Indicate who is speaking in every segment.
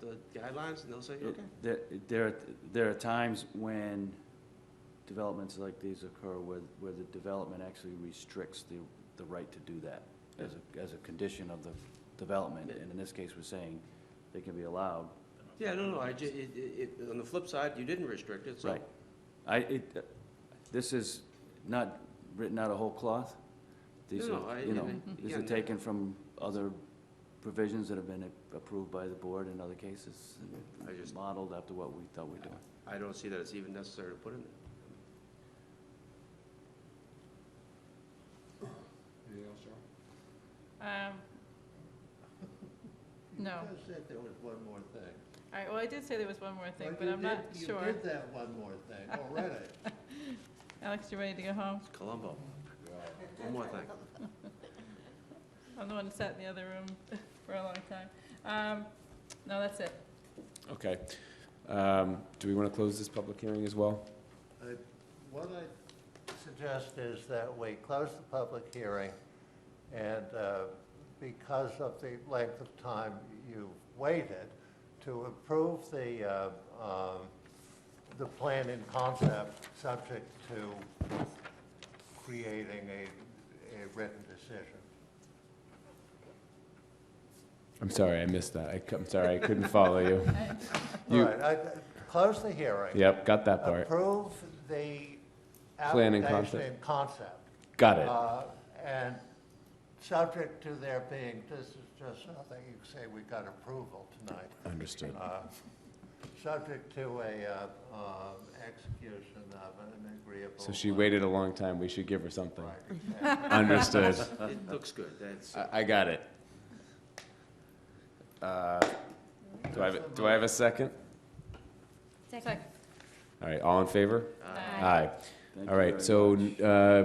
Speaker 1: the guidelines, and they'll say, okay.
Speaker 2: There, there, are- there are times when developments like these occur where, where the development actually restricts the, the right to do that as a, as a condition of the development, and in this case, we're saying they can be allowed.
Speaker 1: Yeah, no, no, I, ju- it, it, it- on the flip side, you didn't restrict it, so.
Speaker 2: Right. I, it, this is not written out of whole cloth. These
Speaker 1: No, no,
Speaker 2: are,
Speaker 1: I-
Speaker 2: you know,
Speaker 1: I-
Speaker 2: these
Speaker 1: yeah,
Speaker 2: are
Speaker 1: no.
Speaker 2: taken from other provisions that have been approved by the board in other cases,
Speaker 1: I just-
Speaker 2: and modeled after what we thought we were doing.
Speaker 1: I don't see that it's even necessary to put in there.
Speaker 3: Anything else, John?
Speaker 4: Um, No.
Speaker 5: You just said there was one more thing.
Speaker 4: All right, well, I did say there was one more thing,
Speaker 5: Well,
Speaker 4: but
Speaker 5: you
Speaker 4: I'm not
Speaker 5: did- You
Speaker 4: sure.
Speaker 5: did that one more thing already.
Speaker 4: Alex, you ready to go home?
Speaker 1: It's Columbo,
Speaker 3: Yeah.
Speaker 1: one more thing.
Speaker 4: I'm the one that sat in the other room for a long time. Um, No, that's it.
Speaker 3: Okay. Um, Do we want to close this public hearing as well?
Speaker 5: Uh, What I suggest is that we close the public hearing, and uh, because of the length of time you've waited, to approve the, uh, um, the plan in concept, subject to creating a, a written decision.
Speaker 3: I'm sorry, I missed that. I cou- I'm sorry, I couldn't follow you.
Speaker 5: All
Speaker 3: You-
Speaker 5: right, I- close the hearing.
Speaker 3: Yep, got that part.
Speaker 5: approve the
Speaker 3: Plan
Speaker 5: application
Speaker 3: and concept.
Speaker 5: in concept.
Speaker 3: Got it.
Speaker 5: uh, And subject to there being, this is just nothing, you can say we got approval tonight.
Speaker 3: Understood.
Speaker 5: Uh, Subject to a uh, um, execution of an agreeable.
Speaker 3: So she
Speaker 5: uh,
Speaker 3: waited a long time. We should give her something.
Speaker 5: right, exactly.
Speaker 3: Understood.
Speaker 1: It looks good, that's,
Speaker 3: I, I got it. Uh, Do I have, a- do I have a second?
Speaker 4: Second.
Speaker 3: All right, all in favor?
Speaker 4: Aye.
Speaker 3: Aye.
Speaker 2: Thank you
Speaker 3: All
Speaker 2: very
Speaker 3: right, so
Speaker 2: much.
Speaker 3: uh,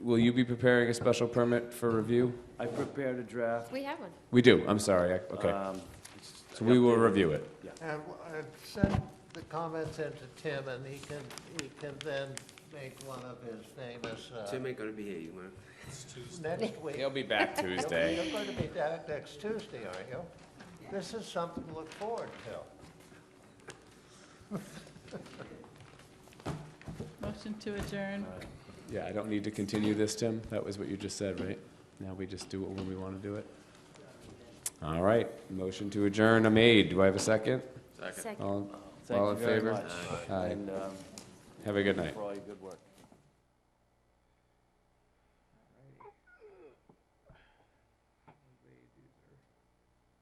Speaker 3: will you be preparing a special permit for review?
Speaker 2: I prepared a draft.
Speaker 6: We have one.
Speaker 3: We do, I'm sorry, I- okay.
Speaker 2: Um, it's-
Speaker 3: So
Speaker 2: I
Speaker 3: we will
Speaker 2: updated-
Speaker 3: review it.
Speaker 5: And w- and send the comments in to Tim, and he can, he can then make one of his famous, uh,
Speaker 1: Tim ain't gonna be here, you know.
Speaker 5: next week.
Speaker 3: He'll be back Tuesday.
Speaker 5: You're going to be down next Tuesday, aren't you? This is something to look forward to.
Speaker 4: Uh, Motion to adjourn.
Speaker 3: Yeah, I don't need to continue this, Tim, that was what you just said, right? Now we just do it when we want to do it? All right, motion to adjourn, I'm made, do I have a second?
Speaker 1: Second.
Speaker 6: Second.
Speaker 3: All,
Speaker 2: Thank
Speaker 3: all
Speaker 2: you
Speaker 3: in
Speaker 2: very
Speaker 3: favor?
Speaker 2: much.
Speaker 3: Aye.
Speaker 2: And um,
Speaker 3: Have a
Speaker 2: thank
Speaker 3: good
Speaker 2: you
Speaker 3: night.
Speaker 2: for all your good work.